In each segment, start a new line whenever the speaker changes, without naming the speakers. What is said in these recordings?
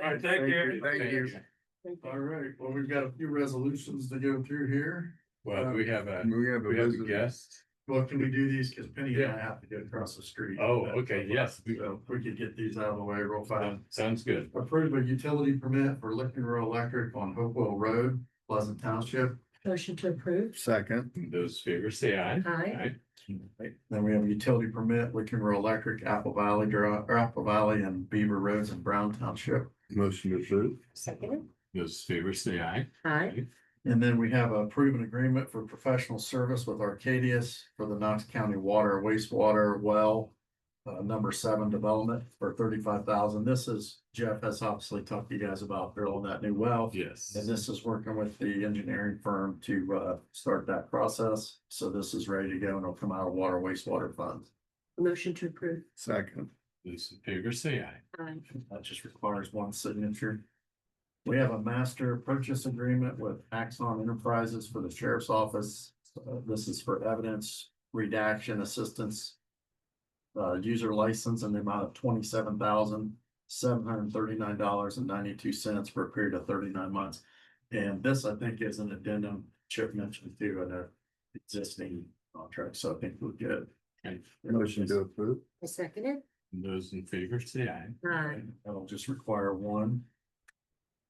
right, thank you.
Thank you.
All right, well, we've got a few resolutions to go through here.
Well, do we have a,
And we have
do we have a
a
guest.
Well, can we do these? Cause Penny and I have to go across the street.
Oh, okay, yes.
So if we could get these out of the way real fast.
Um, Sounds good.
Approve a utility permit for Licking Row Electric on Hopewell Road, Pleasant Township.
Motion to approve.
second.
Those favors say aye.
Aye.
Aye.
Then we have a utility permit, Licking Row Electric, Apple Valley Drive, or Apple Valley and Beaver Roads in Brown Township.
Motion approved.
Second.
Those favors say aye.
Aye.
And then we have a proven agreement for professional service with Arcadius for the Knox County Water wastewater well. Uh, number seven development for thirty-five thousand. This is Jeff has obviously talked to you guys about drilling that new well.
Yes.
And this is working with the engineering firm to, uh, start that process. So this is ready to go and it'll come out of water wastewater funds.
Motion to approve.
Second.
Those favors say aye.
Aye.
That just requires one signature. We have a master purchase agreement with Axon Enterprises for the sheriff's office. Uh, This is for evidence redaction assistance. Uh, user license in the amount of twenty-seven thousand, seven hundred and thirty-nine dollars and ninety-two cents for a period of thirty-nine months. And this, I think, is an addendum Chip mentioned too, in a existing contract, so I think we're good.
Okay.
Motion to approve.
I second it.
Those in favor say aye.
Aye.
That'll just require one.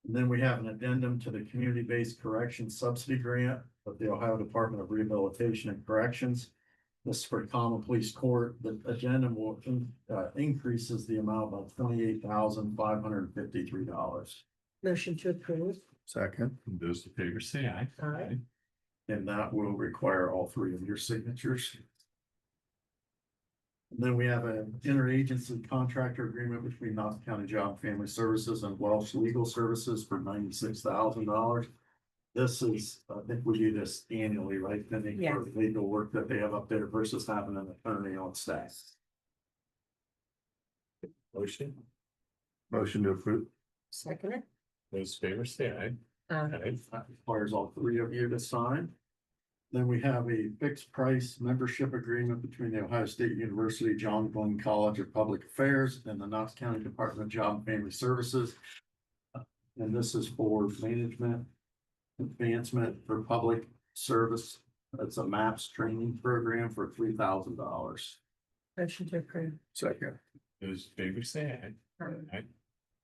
And then we have an addendum to the community-based correction subsidy grant of the Ohio Department of Rehabilitation and Corrections. This is for common police court. The addendum will, in- uh, increases the amount by twenty-eight thousand five hundred and fifty-three dollars.
Motion to approve.
Second.
Those in favor say aye.
Aye.
And that will require all three of your signatures. And then we have an interagency contractor agreement between Knox County Job and Family Services and Welsh Legal Services for ninety-six thousand dollars. This is, I think we do this annually, right? Then they,
Yeah.
for legal work that they have up there versus having an attorney on staff.
Motion.
Motion to approve.
Second it.
Those favors say aye.
Aye.
Aye.
That requires all three of you to sign. Then we have a fixed price membership agreement between the Ohio State University John Glenn College of Public Affairs and the Knox County Department of Job and Family Services. And this is for management advancement for public service. It's a MAPS training program for three thousand dollars.
Motion to approve.
Second.
Those favors say aye. Aye.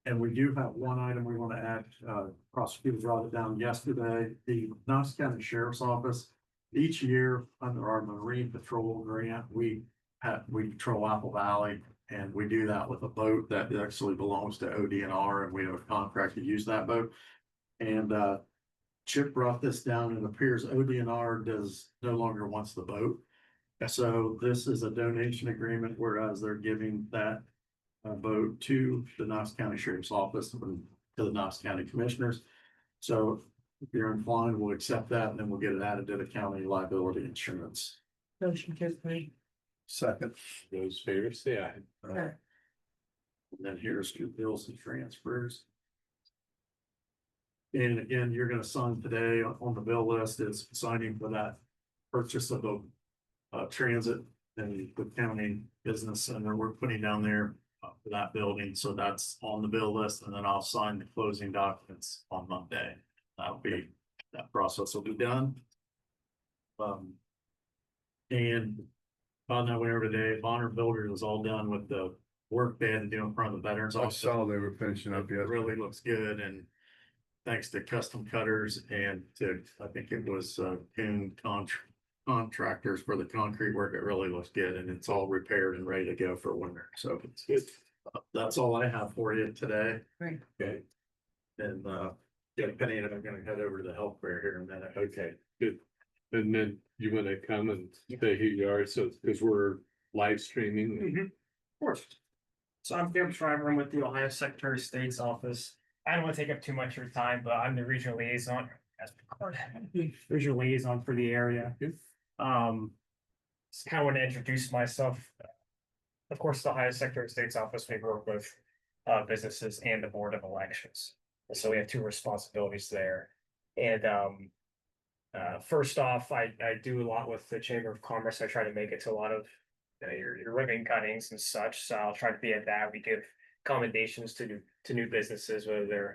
And we do have one item we want to add, uh, prosecutor brought it down yesterday, the Knox County Sheriff's Office. Each year, under our Marine Patrol grant, we have, we patrol Apple Valley. And we do that with a boat that actually belongs to ODNR and we have a contract to use that boat. And, uh, Chip brought this down and it appears ODNR does, no longer wants the boat. So this is a donation agreement, whereas they're giving that uh, vote to the Knox County Sheriff's Office and to the Knox County Commissioners. So if you're inclined, we'll accept that and then we'll get it added to the county liability insurance.
Motion to approve.
Second.
Those favors say aye.
And then here's your bills and transfers. And again, you're gonna sign today on on the bill list is signing for that purchase of the uh, transit and the county business center we're putting down there uh, for that building. So that's on the bill list and then I'll sign the closing documents on Monday. That'll be, that process will be done. Um, and found that way over today, Bonner Builders is all done with the work they had to do in front of the veterans
I
office.
saw they were finishing up
It
yet.
really looks good and thanks to custom cutters and to, I think it was, uh, Coon Contr- contractors for the concrete work. It really looks good and it's all repaired and ready to go for winter. So it's good. That's all I have for you today.
Great.
Okay.
And, uh, yeah, Penny and I'm gonna head over to the health fair here in a minute.
Okay, good. And then you want to come and say who you are, so, because we're live streaming.
Mhm. Of course. So I'm Jim Shriver, I'm with the Ohio Secretary of State's office. I don't want to take up too much of your time, but I'm the regional liaison. that's recorded, Regional liaison for the area. Um. Just kind of want to introduce myself. Of course, the Ohio Secretary of State's office, we work with uh businesses and the Board of Elections. And So we have two responsibilities there. And um. Uh, first off, I I do a lot with the Chamber of Commerce. I try to make it to a lot of uh, your, your ribbon cuttings and such, so I'll try to be at that. We give commendations to to new businesses, whether they're